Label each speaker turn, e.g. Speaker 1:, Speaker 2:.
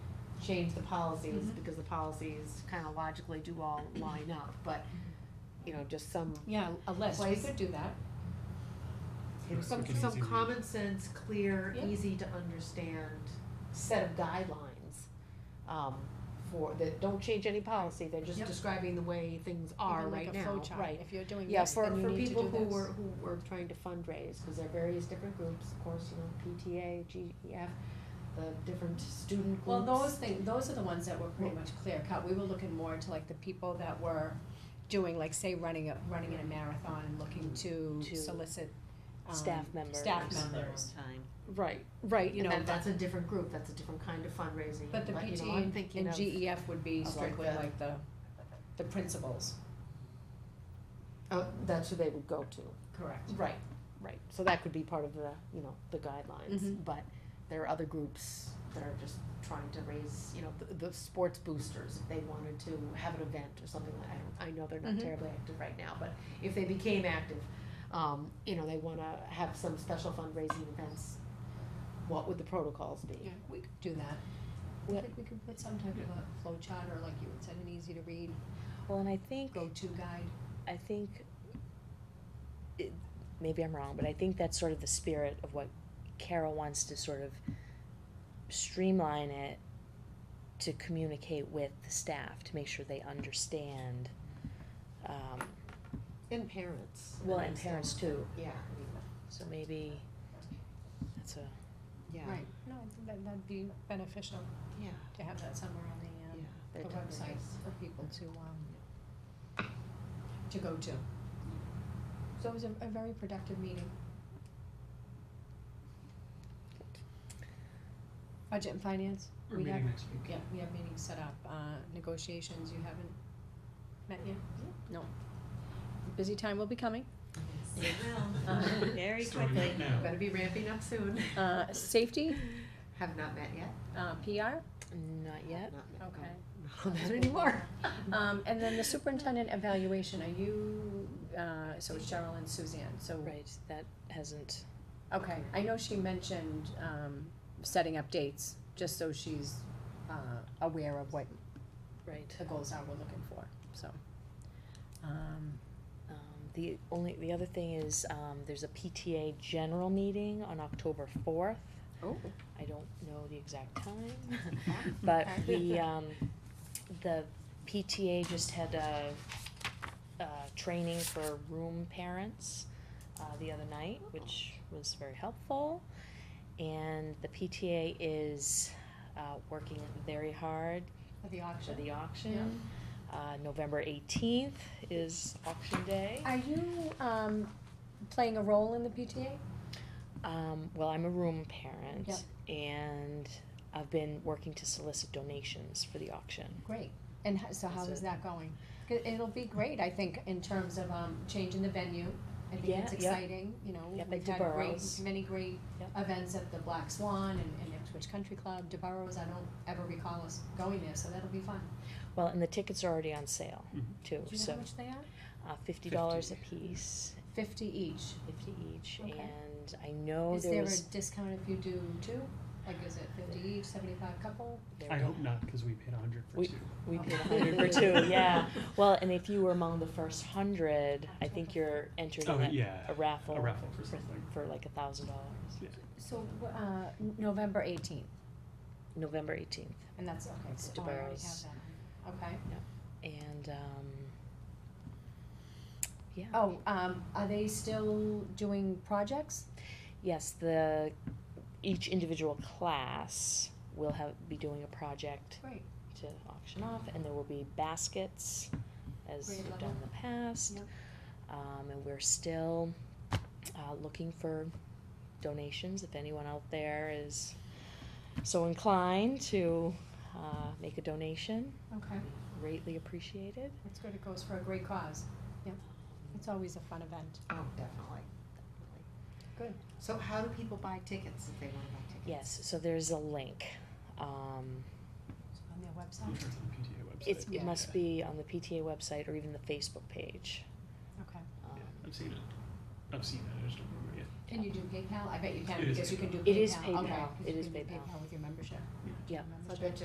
Speaker 1: change the policies,
Speaker 2: Mhm.
Speaker 1: because the policies kind of logically do all line up, but, you know, just some,
Speaker 2: Mm-hmm. Yeah, a list, we
Speaker 1: Place.
Speaker 2: could do that.
Speaker 3: Right,
Speaker 1: some,
Speaker 3: like an
Speaker 1: some
Speaker 3: easy read.
Speaker 1: common sense, clear,
Speaker 2: Yeah.
Speaker 1: easy to understand set of guidelines, um, for, that don't change any policy, they're just
Speaker 2: Yep.
Speaker 1: describing the way things are
Speaker 2: Even
Speaker 1: right
Speaker 2: like a flow
Speaker 1: now,
Speaker 2: chart.
Speaker 1: right.
Speaker 2: If you're doing
Speaker 1: Yeah,
Speaker 2: this,
Speaker 1: for,
Speaker 2: then you
Speaker 1: for
Speaker 2: need to
Speaker 1: people
Speaker 2: do
Speaker 1: who
Speaker 2: this.
Speaker 1: were, who were trying to fundraise, because there are various different groups, of course, you know, PTA, GEF, E the different student groups.
Speaker 2: Well, those things, those are the ones that were pretty much clear cut. We were looking more into like the people that were doing, like, say, running a, running in a marathon and looking to
Speaker 1: To
Speaker 2: solicit, um,
Speaker 4: staff members.
Speaker 2: staff
Speaker 4: for
Speaker 2: members.
Speaker 4: Time.
Speaker 1: Right, right,
Speaker 2: you
Speaker 1: and
Speaker 2: know,
Speaker 1: then that's a different group, that's a different kind of fundraising,
Speaker 2: But the
Speaker 1: you know, I'm
Speaker 2: PTA
Speaker 1: thinking
Speaker 2: and E
Speaker 1: of,
Speaker 2: GEF would be
Speaker 1: of like
Speaker 2: strictly
Speaker 1: the-
Speaker 2: like the, the principals.
Speaker 1: oh, that's who they would go to.
Speaker 2: Correct.
Speaker 1: Right, right, so that could be part of the, you know, the guidelines,
Speaker 2: Mhm.
Speaker 1: but there are other groups that are just trying to raise, you know, the, the sports boosters, if they wanted to have an event or something like, I don't, I know they're not
Speaker 2: Mhm.
Speaker 1: terribly active right now, but if they became active, um, you know, they wanna have some special fundraising events, what would the protocols be?
Speaker 2: Yeah, we could do that. I think we could put some type of a flow chart or like you had said, an easy to read,
Speaker 4: Well, and I think,
Speaker 2: go-to guide.
Speaker 4: I think, it, maybe I'm wrong, but I think that's sort of the spirit of what Carol wants to sort of streamline it to communicate with the staff to make sure they understand. Um,
Speaker 1: And parents.
Speaker 4: well, and parents too.
Speaker 1: Yeah.
Speaker 4: So maybe that's a.
Speaker 1: Yeah.
Speaker 2: Right. No, I think that, that'd be beneficial
Speaker 1: Yeah,
Speaker 2: to have that somewhere on the, um,
Speaker 1: yeah.
Speaker 2: the website for people to, um, to go to. So it was a, a very productive meeting. Budget and finance,
Speaker 3: We're
Speaker 2: we have,
Speaker 3: meeting next week.
Speaker 2: yeah, we have meetings set up, uh, negotiations, you haven't met yet? No. Busy time will be coming.
Speaker 4: It will,
Speaker 2: Uh,
Speaker 4: very
Speaker 3: Starting
Speaker 4: quickly.
Speaker 3: up now.
Speaker 1: Better be ramping up soon.
Speaker 2: Uh, safety,
Speaker 1: Have not met yet.
Speaker 2: uh, PR,
Speaker 4: Not yet.
Speaker 1: Not met.
Speaker 2: okay.
Speaker 1: Not on that anymore.
Speaker 2: Um, and then the superintendent evaluation, are you, uh, so Cheryl and Suzanne, so.
Speaker 4: Right, that hasn't.
Speaker 2: Okay, I know she mentioned, um, setting up dates, just so she's, uh, aware of what
Speaker 4: Right.
Speaker 2: the goals are we're looking for, so. Um,
Speaker 4: Um, the only the other thing is um, there's a PTA general meeting on October fourth.
Speaker 2: oh,
Speaker 4: I don't know the exact time, but we um, the PTA just had a, a training for room parents uh, the other night, which was very helpful. And the PTA is uh, working very hard
Speaker 2: for the
Speaker 4: for
Speaker 2: auction.
Speaker 4: the auction. Uh, November eighteenth is auction day.
Speaker 2: Are you, um, playing a role in the PTA?
Speaker 4: Um, well, I'm a room parent,
Speaker 2: Yep.
Speaker 4: and I've been working to solicit donations for the auction.
Speaker 2: Great, and ho- so how
Speaker 4: That's
Speaker 2: is
Speaker 4: it.
Speaker 2: that going? 'Cause It'll be great, I think, in terms of, um, changing the venue, I think
Speaker 4: Yeah,
Speaker 2: it's
Speaker 4: yep.
Speaker 2: exciting, you know,
Speaker 4: Yep, at
Speaker 2: we've had great,
Speaker 4: DeBarros.
Speaker 2: many great
Speaker 4: Yep.
Speaker 2: events at the Black Swan and, and Ipswich Country Club, DeBarros, I don't ever recall us going there, so that'll be fun.
Speaker 4: Well, and the tickets are already on sale
Speaker 3: Mhm.
Speaker 2: Do
Speaker 4: too,
Speaker 2: you know
Speaker 4: so
Speaker 2: how much they are?
Speaker 4: uh, fifty dollars a
Speaker 3: 50.
Speaker 4: piece,
Speaker 2: Fifty each.
Speaker 4: fifty each,
Speaker 2: Okay.
Speaker 4: and I know
Speaker 2: Is
Speaker 4: there,
Speaker 2: there a
Speaker 4: was.
Speaker 2: discount if you do two? Like, is it fifty each, seventy-five couple?
Speaker 4: there
Speaker 3: I
Speaker 4: were-
Speaker 3: hope not, because we paid a hundred for
Speaker 4: We-
Speaker 3: two.
Speaker 4: We paid
Speaker 2: Okay.
Speaker 4: hundred for two, yeah. Well, and if you were among the first hundred, I think you're entered
Speaker 3: Oh,
Speaker 4: in a,
Speaker 3: yeah,
Speaker 4: a raffle
Speaker 3: a raffle for
Speaker 4: for,
Speaker 3: something.
Speaker 4: for like a thousand dollars.
Speaker 3: Yeah.
Speaker 2: So, uh, November eighteenth,
Speaker 4: November eighteenth,
Speaker 2: and that's, okay,
Speaker 4: It's
Speaker 2: so I already have
Speaker 4: DeBarros.
Speaker 2: that, okay.
Speaker 4: and um, yeah.
Speaker 2: Oh, um, are they still doing projects?
Speaker 4: Yes, the, each individual class will have, be doing a project
Speaker 2: Great.
Speaker 4: to auction off, and there will be baskets, as
Speaker 2: Great,
Speaker 4: we've
Speaker 2: love
Speaker 4: done in the past.
Speaker 2: Yep.
Speaker 4: Um, and we're still, uh, looking for donations, if anyone out there is so inclined to, uh, make a donation,
Speaker 2: Okay,
Speaker 4: greatly appreciated.
Speaker 2: that's good, it goes for a great cause. Yep, it's always a fun event.
Speaker 1: Oh, definitely, definitely.
Speaker 2: Good.
Speaker 1: So how do people buy tickets if they wanna buy tickets?
Speaker 4: Yes, so there's a link, um,
Speaker 2: On their
Speaker 3: I'm
Speaker 2: website,
Speaker 3: sure it's on the PTA website.
Speaker 4: it's,
Speaker 2: Yeah.
Speaker 4: it must be on the PTA website or even the Facebook page.
Speaker 2: okay.
Speaker 4: Um,
Speaker 3: Yeah, I've seen it. I've seen it, I just don't remember yet.
Speaker 2: Can you do PayPal? I bet you can,
Speaker 3: It is
Speaker 2: because you can do PayPal.
Speaker 3: PayPal.
Speaker 4: It is PayPal.
Speaker 2: Okay, 'cause
Speaker 4: It
Speaker 2: you
Speaker 4: is
Speaker 2: can do
Speaker 4: PayPal.
Speaker 2: with your membership.
Speaker 3: Yeah.
Speaker 4: Yeah.
Speaker 1: So I
Speaker 2: Membership.
Speaker 1: bet you